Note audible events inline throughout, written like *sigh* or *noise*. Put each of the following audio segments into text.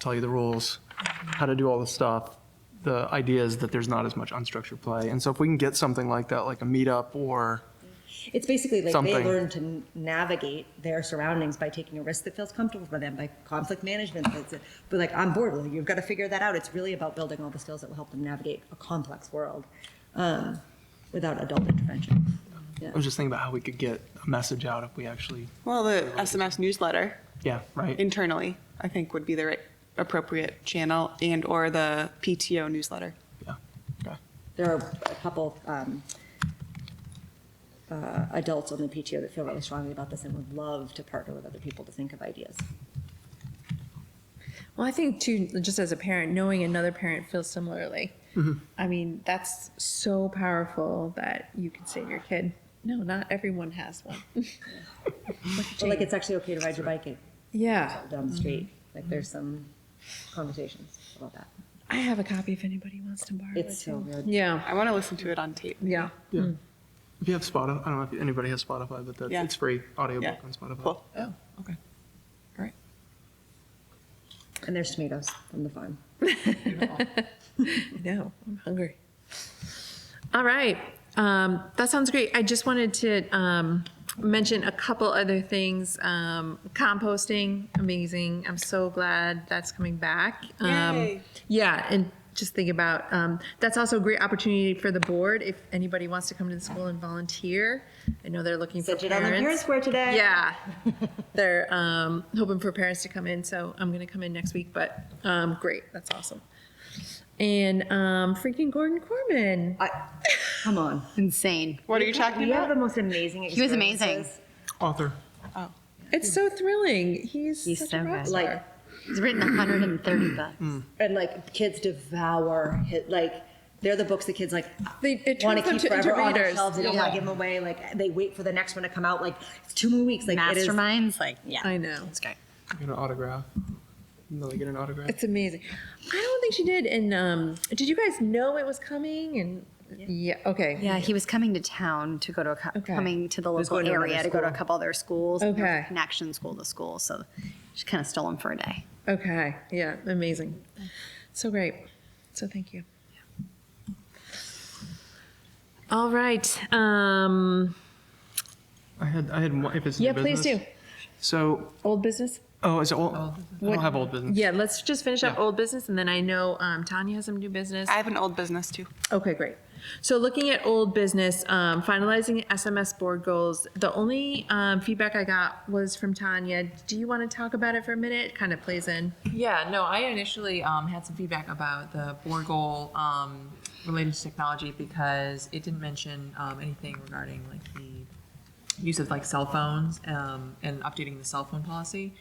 tell you the rules, how to do all the stuff. The idea is that there's not as much unstructured play. And so if we can get something like that, like a meetup or, It's basically like Something. they learn to n- navigate their surroundings by taking a risk that feels comfortable for them, by conflict management. That's but like on board with it. You've got to figure that out. It's really about building all the skills that will help them navigate a complex world um, without adult intervention. Yeah. I was just thinking about how we could get a message out if we actually, Well, the SMS newsletter yeah, right? internally, I think, would be the right, appropriate channel and or the PTO newsletter. Yeah. Okay. There are a couple um, uh, adults on the PTO that feel really strongly about this and would love to partner with other people to think of ideas. Well, I think too, just as a parent, knowing another parent feels similarly. I mean, that's so powerful that you can say to your kid, "No, not everyone has one." Look at Well, like Jane. it's actually okay to ride your bike yeah, down the street. Like there's some conversations about that. I have a copy if anybody wants to borrow It's it. so good. yeah, I want to listen to it on tape. yeah. Yeah. If you have Spotify, I don't know if anybody has Spotify, but Yeah. that's, it's free audiobook Yeah. on Spotify. Cool. Oh, okay. All right. And there's tomatoes from the farm. I know. I'm hungry. All right. Um, that sounds great. I just wanted to um, mention a couple other things. Um, composting, amazing. I'm so glad that's coming back. Um, Yay. Yeah, and just think about um, that's also a great opportunity for the board if anybody wants to come to the school and volunteer. I know they're looking for Sit it on parents. the parent square today. Yeah. *laughs* They're um, hoping for parents to come in, so I'm going to come in next week, but um, great. That's awesome. And um, freaking Gordon Corman. I, come on. Insane. What are you talking You have about? the most amazing He was amazing. experiences. Author. It's so thrilling. He's, He's such so a rock good. star. Like, He's written 130 books. and like kids devour hit like they're the books the kids like They- it want to turns keep them to- into forever on their readers. shelves. They don't want Yeah. to give them away. Like they wait for the next one to come out. Like it's two more weeks. Like it is- Masterminds, like, yeah. I know. It's great. Get an autograph. No, they get an autograph. It's amazing. I don't think she did. And um, did you guys know it was coming? And yeah, okay. Yeah, he was coming to town to go to a cou- Okay. coming to the was local going to another area to go to a school. couple other schools. and there was a Okay. Connection school to school, so she kind of stole him for a day. Okay. Yeah. Amazing. So great. So thank you. All right. Um, I had, I had, one- if it's new yeah, please do. business. So, Old business? oh, is it old? I don't have old business. Yeah, let's just finish up Mm-hmm. Yeah. old business and then I know um, Tanya has some new business. I have an old business too. Okay, great. So looking at old business, um, finalizing SMS board goals. The only um, feedback I got was from Tanya. Do you want to talk about it for a minute? Kind of plays in. Yeah, no, I initially um, had some feedback about the board goal um, related to technology because it didn't mention um, anything regarding like the use of like cell phones um, and updating the cell phone policy.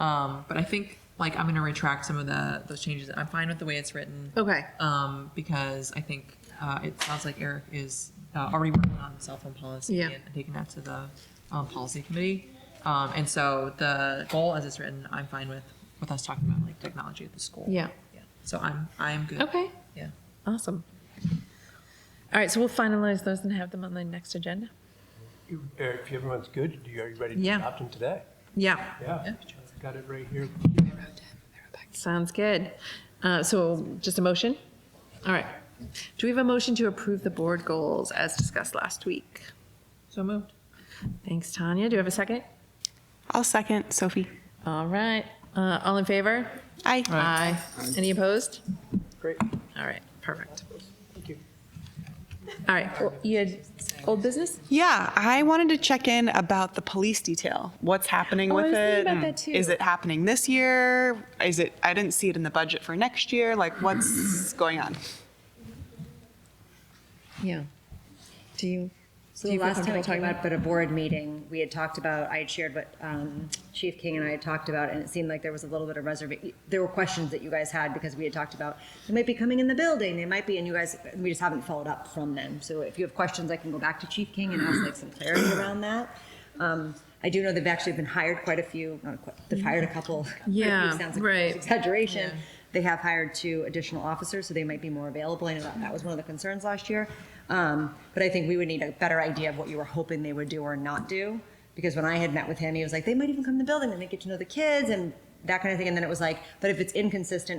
Um, but I think like I'm going to retract some of the those changes. I'm fine with the way it's written Okay. um, because I think uh, it sounds like Eric is uh, already working on the cell phone policy Yeah. and taking that to the um, policy committee. Um, and so the goal, as it's written, I'm fine with with us talking about like technology at the school. Yeah. yeah. So I'm I'm good. Okay. Yeah. Awesome. All right, so we'll finalize those and have them on the next agenda. You- Eric, if everyone's good, you- are you ready to Yeah. adopt them today? Yeah. Yeah. Got it right here. Sounds good. Uh, so just a motion? All right. Do we have a motion to approve the board goals as discussed last week? So moved. Thanks, Tanya. Do you have a second? I'll second Sophie. All right. Uh, all in favor? Aye. Aye. Any opposed? Great. All right, perfect. All right, well, you had old business? Yeah, I wanted to check in about the police detail. What's happening Oh, I with was it? thinking about and that too. Is it happening this year? Is it? I didn't see it in the budget for next year. Like, what's going on? Yeah. Do you? So Do the you feel last time I comfortable came talking up at a board meeting, we had talked about, I had shared what um, Chief King and I had talked about, and it seemed like there was a little bit of reservation. There were questions that you guys had because we had talked about, they might be coming in the building, they might be, and you guys, we just haven't followed up from them. So if you have questions, I can go back to Chief King and ask like some *clears throat* clarity around that. Um, I do know they've actually been hired quite a few, not quite, they've hired a couple. *laughs* quite a few Yeah, sounds like right. Exaggeration. They have hired two additional officers, so they might be more available. I know that, that was one of the concerns last year. Um, but I think we would need a better idea of what you were hoping they would do or not do. Because when I had met with him, he was like, they might even come in the building and they get to know the kids and that kind of thing. And then it was like, but if it's inconsistent,